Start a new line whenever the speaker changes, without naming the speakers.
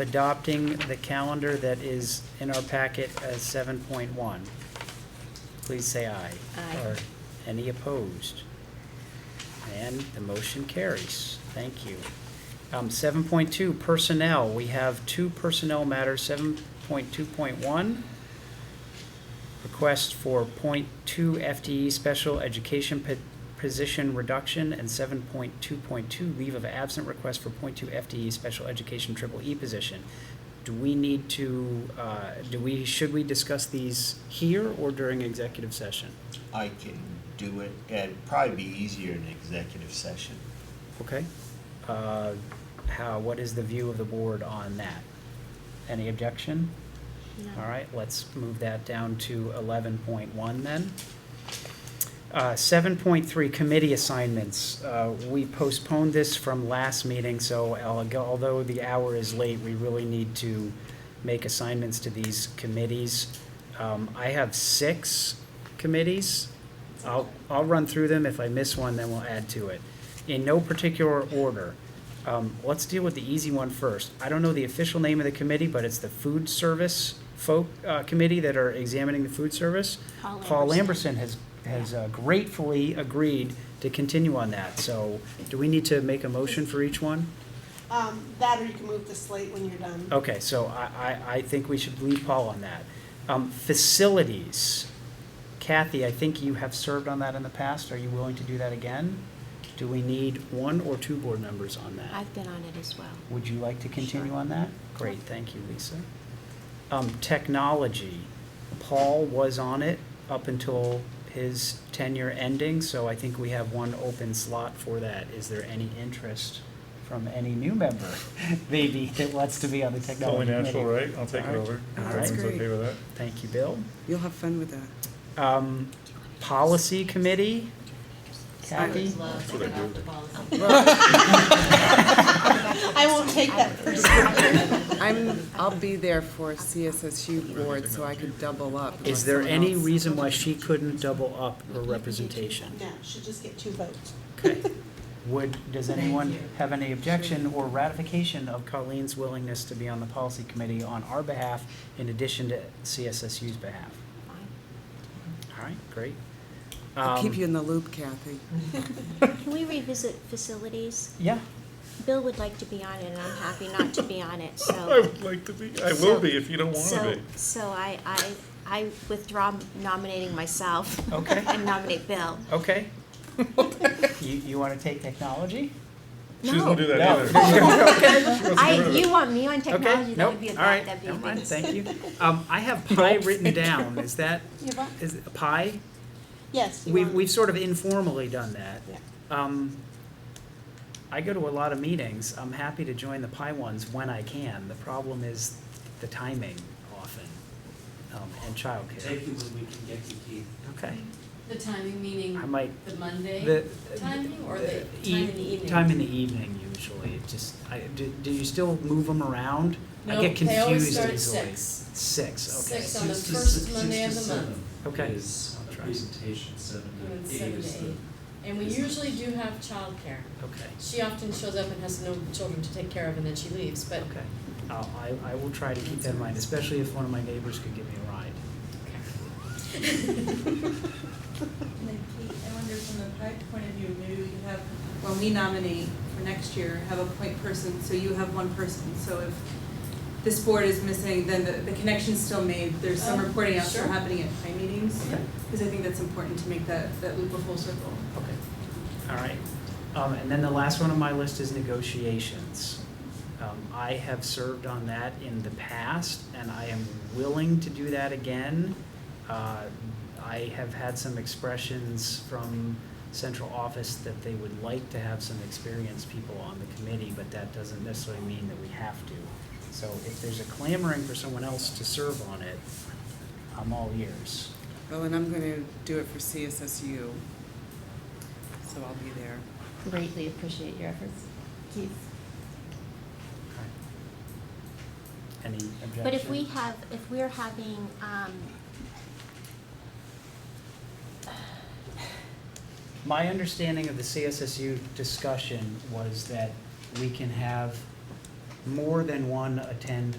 of adopting the calendar that is in our packet as 7.1. Please say aye.
Aye.
Or Any opposed? And the motion carries. Thank you. Um, 7.2, personnel. We have two personnel matters, 7.2.1, request for .2 FTE E special education po- position reduction, and 7.2.2, leave of absent request for .2 FTE E special education triple E position. Do we need to, uh, do we, should we discuss these here or during executive session?
I can do it, it'd probably be easier in executive session.
Okay. Uh, How, what is the view of the board on that? Any objection?
No.
All right, let's move that down to eleven point one then. uh, Seven point three, committee assignments. Uh, We postponed this from last meeting, so al- although the hour is late, we really need to make assignments to these committees. Um, I have six committees. I'll, I'll run through them. If I miss one, then we'll add to it. In no particular order. Um, let's deal with the easy one first. I don't know the official name of the committee, but it's the food service folk, uh, committee that are examining the food service.
Paul
Paul
Lamberson.
Lamberson has, has uh, gratefully agreed to continue on that. So do we need to make a motion for each one?
Um, that or you can move the slate when you're done.
Okay, so I, I, I think we should leave Paul on that. Um, facilities. Kathy, I think you have served on that in the past. Are you willing to do that again? Do we need one or two board members on that?
I've been on it as well.
Would you like to continue
Sure.
on that? Great, thank you, Lisa. Um, technology, Paul was on it up until his tenure ending, so I think we have one open slot for that. Is there any interest from any new member, maybe, that wants to be on the
Only
technology committee?
natural, right? I'll take it
Alright.
over. If
Alright.
everyone's
That's
okay
great.
with that.
Thank you, Bill.
You'll have fun with that.
Um, policy committee, Kathy?
That's what I do.
I won't take that person.
I'm, I'll be there for CSSU board, so I could double up. unless
Is there
someone
any
else-
reason why she couldn't double up her representation?
No, should just get two votes.
Okay. Would, does anyone have any objection or ratification of Colleen's willingness to be on the policy committee on our behalf in addition to CSSU's behalf?
Fine.
All right, great.
I'll keep
Um,
you in the loop, Kathy.
Can we revisit facilities?
Yeah,
Bill would like to be on it, and I'm happy not to be on it,
I
so.
would like to be, I
So-
will be if you don't want
so-
to be.
So I, I, I withdraw nominating myself.
Okay.
And nominate Bill.
okay. You, you want to take technology?
She doesn't wanna do that
No.
either. She wants to get
I,
rid of it.
you want me on
Okay,
technology, that
nope,
would be a
all right,
bad, that'd be a
never mind,
big.
thank you. Um, I have pie written down, is that, is it pie?
Yes, you
We've,
want-
we've sort of informally done that.
Yeah.
Um, I go to a lot of meetings. I'm happy to join the PI ones when I can. The problem is the timing often, um, and childcare.
Take you when we can get you, Keith.
Okay,
The timing meaning
I might,
the Monday
the.
timing or the time
e-
in the evening?
Time in the evening usually. It just, I, do, do you still move them around? I
No,
get
they always
confused
start at
easily.
six.
Six, okay.
Six on the
Six to
first
six-
Monday of the month.
Six to
Okay.
seven is
I'll
the
try.
presentation, seven
And
to eight
seven
is
to
the.
eight. And we
is-
usually do have childcare.
Okay,
She often shows up and has no children to take care of and then she leaves, but
okay. I'll, I, I will try to keep that in mind, especially if one of my neighbors could give me a ride.
Like, Kate, I wonder from the PIE point of view, maybe we could have, when we nominate for next year, have a point person, so you have one person. So if this board is missing, then the, the connection's still made, there's some
Oh,
reporting out there
sure.
happening at PIE meetings.
Okay.
Because I think that's important to make that, that loop a full circle.
Okay, all right. Um, and then the last one on my list is negotiations. Um, I have served on that in the past, and I am willing to do that again. Uh, I have had some expressions from central office that they would like to have some experienced people on the committee, but that doesn't necessarily mean that we have to. So if there's a clamoring for someone else to serve on it, I'm all ears.
Well, and I'm gonna do it for CSSU, so I'll be there.
greatly appreciate your efforts, Keith.
Okay. Any objection?
But if we have, if we're having, um,
My understanding of the CSSU discussion was that we can have more than one attend